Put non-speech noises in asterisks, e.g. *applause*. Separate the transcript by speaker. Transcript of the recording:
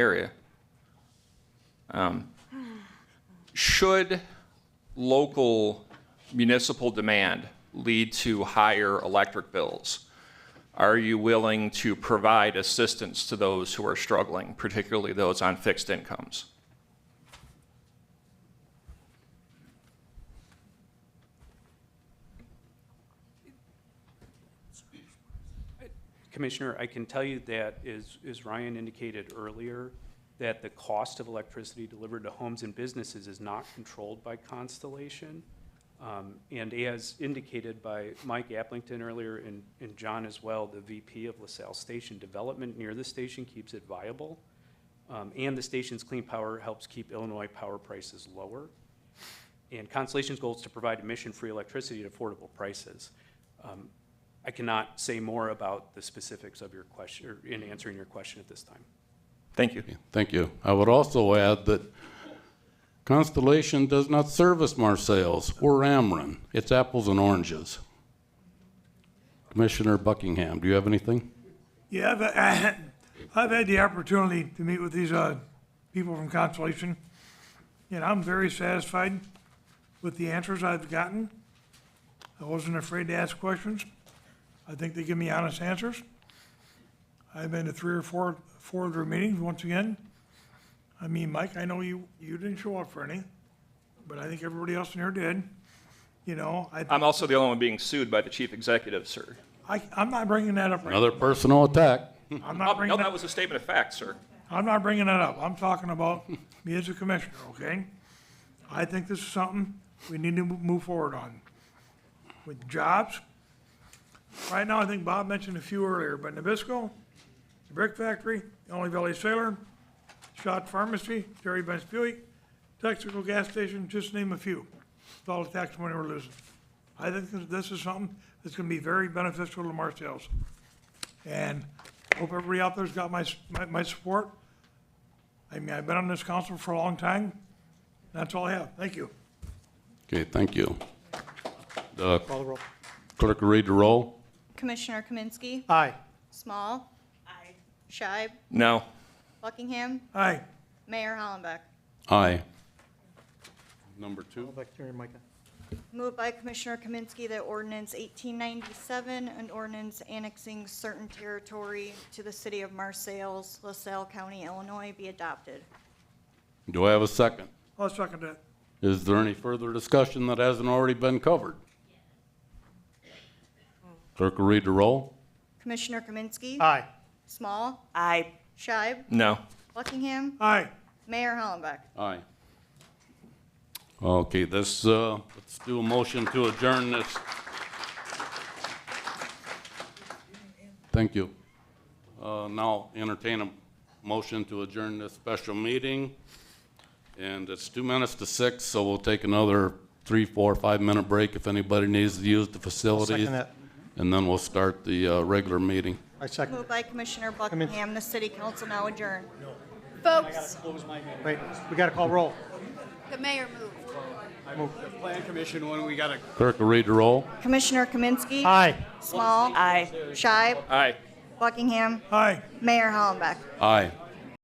Speaker 1: area. Um, Should local municipal demand lead to higher electric bills? Are you willing to provide assistance to those who are struggling, particularly those on fixed incomes?
Speaker 2: Commissioner, I can tell you that, as, as Ryan indicated earlier, that the cost of electricity delivered to homes and businesses is not controlled by Constellation. Um, and as indicated by Mike Applington earlier and, and John as well, the VP of LaSalle Station, development near the station keeps it viable. Um, and the station's clean power helps keep Illinois power prices lower. And Constellation's goal is to provide emission-free electricity at affordable prices. Um, I cannot say more about the specifics of your question, or in answering your question at this time.
Speaker 1: Thank you.
Speaker 3: Thank you. I would also add that Constellation does not service Marseilles or Ameren. It's apples and oranges. Commissioner Buckingham, do you have anything?
Speaker 4: Yeah, I've, *laughs* I've had the opportunity to meet with these, uh, people from Constellation, and I'm very satisfied with the answers I've gotten. I wasn't afraid to ask questions. I think they give me honest answers. I've been to three or four, four of their meetings, once again. I mean, Mike, I know you, you didn't show up for any, but I think everybody else in here did. You know, I,
Speaker 1: I'm also the only one being sued by the chief executive, sir.
Speaker 4: I, I'm not bringing that up right
Speaker 3: Another personal attack.
Speaker 4: now. I'm
Speaker 1: Oh,
Speaker 4: not
Speaker 1: No,
Speaker 4: bringing that
Speaker 1: that was a statement of fact, sir.
Speaker 4: I'm not bringing that up. I'm talking about *laughs* me as a commissioner, okay? I think this is something we need to move forward on. With jobs, right now, I think Bob mentioned a few earlier, but Nabisco, the Brick Factory, Only Valley Sailor, Shot Pharmacy, Terry Benz Buick, Texaco Gas Station, just to name a few. It's all the tax money we're losing. I think this- this is something that's gonna be very beneficial to Marseilles. And hope everybody out there's got my, s- my, my support. I mean, I've been on this council for a long time. That's all I have. Thank you.
Speaker 3: Okay, thank you. Uh, Clerk, will read the roll.
Speaker 5: Commissioner Kaminsky.
Speaker 4: Aye.
Speaker 5: Small. Aye. Shibe.
Speaker 1: No.
Speaker 5: Buckingham.
Speaker 4: Aye.
Speaker 5: Mayor Hollenbeck.
Speaker 3: Aye. Number two.
Speaker 5: Moved by Commissioner Kaminsky that ordinance 1897, an ordinance annexing certain territory to the city of Marseilles, LaSalle County, Illinois, be adopted.
Speaker 3: Do I have a second?
Speaker 4: I'll second that.
Speaker 3: Is there any further discussion that hasn't already been covered? Clerk, will read the roll.
Speaker 5: Commissioner Kaminsky.
Speaker 4: Aye.
Speaker 5: Small. Aye. Shibe.
Speaker 1: No.
Speaker 5: Buckingham.
Speaker 4: Aye.
Speaker 5: Mayor Hollenbeck.
Speaker 3: Aye. Okay, this, uh, let's do a motion to adjourn this. Thank you. Uh, now entertain a motion to adjourn this special meeting. And it's two minutes to six, so we'll take another three, four, five-minute break if anybody needs to use the facilities.
Speaker 6: Second that.
Speaker 3: And then we'll start the, uh, regular meeting.
Speaker 6: I second.
Speaker 5: Moved by Commissioner Buckingham, the city council now adjourned.
Speaker 7: Folks,
Speaker 6: Wait, we got to call roll.
Speaker 7: the mayor moved.
Speaker 8: Plan Commission, when we got a
Speaker 3: Clerk will read the roll.
Speaker 5: Commissioner Kaminsky.
Speaker 6: Aye.
Speaker 5: Small. Aye. Shibe.
Speaker 1: Aye.
Speaker 5: Buckingham.
Speaker 4: Aye.
Speaker 5: Mayor Hollenbeck.
Speaker 3: Aye.